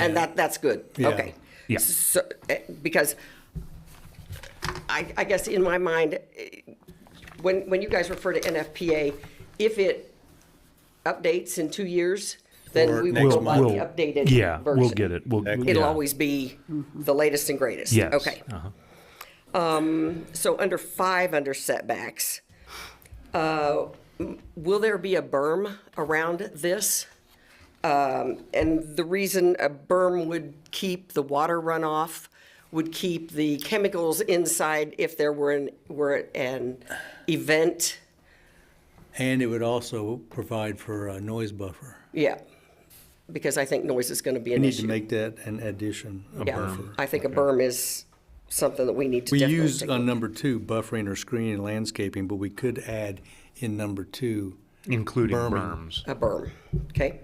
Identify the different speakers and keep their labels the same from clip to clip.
Speaker 1: And that, that's good,
Speaker 2: Yeah.
Speaker 1: okay.
Speaker 3: Yeah.
Speaker 1: So, eh, because I, I guess in my mind, eh, when, when you guys refer to NFPA, if it updates in two years, then
Speaker 2: Or
Speaker 1: we
Speaker 2: next
Speaker 1: will go by the
Speaker 3: We'll-
Speaker 1: updated
Speaker 3: Yeah, we'll
Speaker 1: version.
Speaker 3: get it. We'll,
Speaker 1: It'll
Speaker 3: yeah.
Speaker 1: always be the latest and greatest.
Speaker 3: Yes.
Speaker 1: Okay.
Speaker 3: Uh-huh.
Speaker 1: So under five, under setbacks, uh, will there be a berm around this? Um, And the reason a berm would keep the water runoff, would keep the chemicals inside if there were an, were an event,
Speaker 2: And it would also provide for a noise buffer.
Speaker 1: yeah. Because I think noise is going to be
Speaker 2: We
Speaker 1: an
Speaker 2: need to
Speaker 1: issue.
Speaker 2: make that an addition, a
Speaker 1: Yeah,
Speaker 2: buffer.
Speaker 1: I think a berm is something that we need to
Speaker 2: We
Speaker 1: definitely
Speaker 2: use
Speaker 1: take
Speaker 2: on number two, buffering or screening landscaping, but we could add in number two.
Speaker 3: Including
Speaker 2: Berman.
Speaker 3: berms.
Speaker 1: A berm, okay?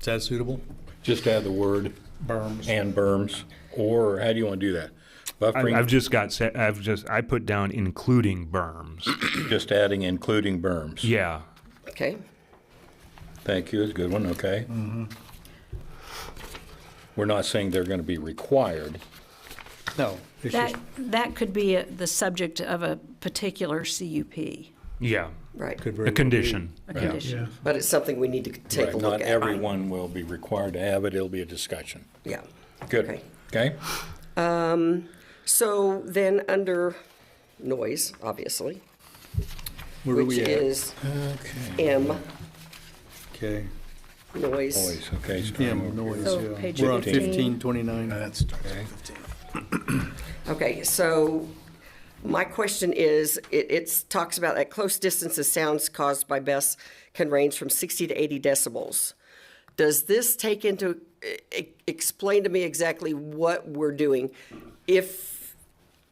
Speaker 2: Is that suitable?
Speaker 4: Just add the word.
Speaker 2: Berms.
Speaker 4: And berms, or how do you want to do that?
Speaker 3: I- I've
Speaker 4: Buffering,
Speaker 3: just got, set- I've just, I put down including berms.
Speaker 4: just adding including berms.
Speaker 3: Yeah.
Speaker 1: Okay,
Speaker 4: Thank you, it's a good one, okay. We're not saying they're going to be required.
Speaker 2: No, it's just,
Speaker 5: That, that could be a- the subject of a particular CUP,
Speaker 3: Yeah.
Speaker 1: right.
Speaker 2: could very
Speaker 3: A
Speaker 2: well be.
Speaker 3: condition.
Speaker 5: a condition.
Speaker 1: But it's something we need to take
Speaker 4: Right,
Speaker 1: a look
Speaker 4: Not
Speaker 1: at.
Speaker 4: everyone will be required to have it, it'll be a discussion.
Speaker 1: Yeah.
Speaker 4: Good,
Speaker 1: Okay.
Speaker 4: okay?
Speaker 1: So then, under noise, obviously,
Speaker 2: Where are
Speaker 1: which
Speaker 2: we at?
Speaker 1: is
Speaker 4: Okay.
Speaker 1: M,
Speaker 2: Okay.
Speaker 1: noise.
Speaker 4: Noise, okay,
Speaker 2: Yeah,
Speaker 4: starting over
Speaker 2: noise,
Speaker 4: here. Oh,
Speaker 5: So
Speaker 2: yeah.
Speaker 5: page
Speaker 2: We're on
Speaker 5: 15.
Speaker 2: fifteen twenty-nine.
Speaker 4: Okay.
Speaker 1: Okay, so my question is, it, it's, talks about at close distances, sounds caused by BES can range from 60 to 80 decibels. Does this take into, e- e- explain to me exactly what we're doing? If,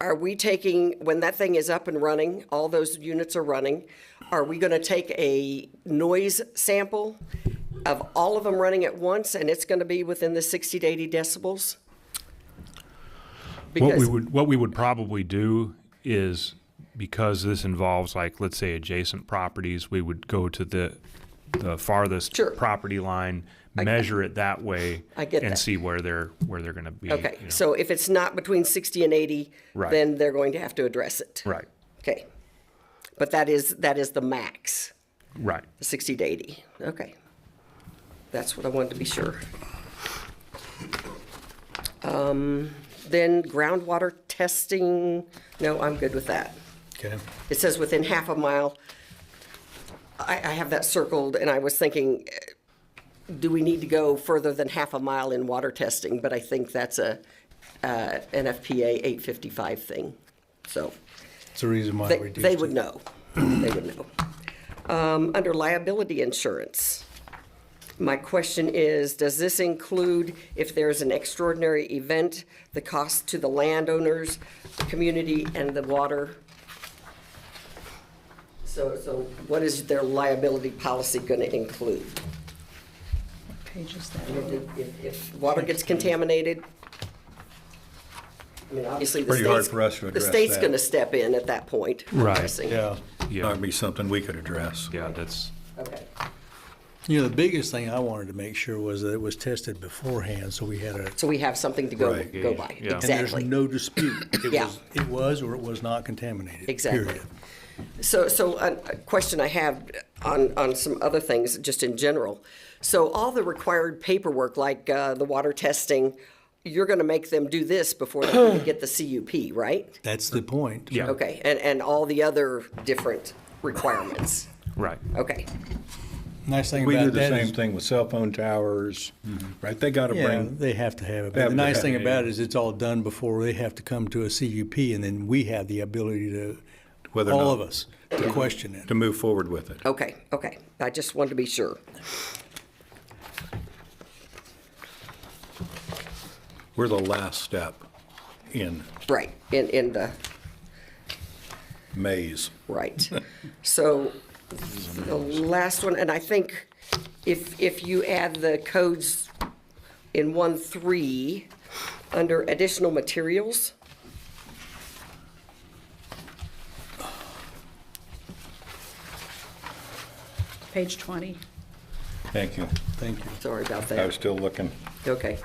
Speaker 1: are we taking, when that thing is up and running, all those units are running, are we going to take a noise sample of all of them running at once, and it's going to be within the 60 to 80 decibels?
Speaker 3: What we
Speaker 1: Because-
Speaker 3: would, what we would probably do is, because this involves like, let's say adjacent properties, we would go to the, the farthest
Speaker 1: Sure.
Speaker 3: property line, measure it that way.
Speaker 1: I get
Speaker 3: And
Speaker 1: that.
Speaker 3: see where they're, where they're gonna be.
Speaker 1: Okay,
Speaker 3: you know.
Speaker 1: so if it's not between 60 and 80,
Speaker 3: Right.
Speaker 1: then they're going to have to address it.
Speaker 3: Right,
Speaker 1: Okay. But that is, that is the max,
Speaker 3: right.
Speaker 1: 60 to 80. Okay. That's what I wanted to be sure. Um, Then groundwater testing, no, I'm good with that.
Speaker 2: Okay.
Speaker 1: It says within half a mile. I, I have that circled, and I was thinking, eh, do we need to go further than half a mile in water testing? But I think that's a uh, NFPA 855 thing. So
Speaker 2: It's the reason why
Speaker 1: they,
Speaker 2: we reduced
Speaker 1: they would
Speaker 2: it.
Speaker 1: know. They would know. Um, Under liability insurance, my question is, does this include, if there is an extraordinary event, the cost to the landowners, the community, and the water? So, so what is their liability policy going to include?
Speaker 5: Pages that
Speaker 1: If- If, if water gets contaminated? I mean, obviously, the
Speaker 4: Pretty hard
Speaker 1: state's,
Speaker 4: for us to
Speaker 1: the
Speaker 4: address
Speaker 1: state's
Speaker 4: that.
Speaker 1: going to step in at that point. I'm
Speaker 3: Right,
Speaker 1: guessing.
Speaker 2: Yeah.
Speaker 4: That'd be something we could address.
Speaker 3: Yeah, that's,
Speaker 1: Okay.
Speaker 2: You know, the biggest thing I wanted to make sure was that it was tested beforehand, so we had a,
Speaker 1: So we have something to go,
Speaker 2: Right.
Speaker 1: go by.
Speaker 3: Yeah. And
Speaker 2: and there's
Speaker 1: Exactly.
Speaker 2: no dispute. It
Speaker 1: Yeah.
Speaker 2: was- It was or it was not contaminated.
Speaker 1: Exactly.
Speaker 2: period.
Speaker 1: So, so a a question I have on, on some other things, just in general. So all the required paperwork, like uh, the water testing, you're going to make them do this before they can get the CUP, right?
Speaker 2: That's the point.
Speaker 3: yeah,
Speaker 1: Okay, and, and all the other different requirements.
Speaker 3: right.
Speaker 1: Okay,
Speaker 2: Nice thing
Speaker 4: We do
Speaker 2: about
Speaker 4: the
Speaker 2: that is.
Speaker 4: same thing with cell phone towers, right? They got to
Speaker 2: Yeah,
Speaker 4: bring,
Speaker 2: they have to have it.
Speaker 4: They
Speaker 2: But
Speaker 4: have
Speaker 2: the
Speaker 4: to
Speaker 2: nice
Speaker 4: have
Speaker 2: thing
Speaker 4: it,
Speaker 2: about it
Speaker 4: yeah.
Speaker 2: is it's all done before they have to come to a CUP, and then we have the ability to,
Speaker 4: Whether or
Speaker 2: all
Speaker 4: not-
Speaker 2: of us, to question it.
Speaker 4: to move forward with it.
Speaker 1: okay, okay. I just wanted to be sure.
Speaker 4: We're the last step in
Speaker 1: Right, in, in the,
Speaker 4: maze.
Speaker 1: right. So the last one, and I think if, if you add the codes in one, three, under additional materials,
Speaker 5: Page 20.
Speaker 4: Thank you.
Speaker 2: Thank you.
Speaker 1: sorry about
Speaker 4: I was
Speaker 1: that.
Speaker 4: still looking.
Speaker 1: Okay.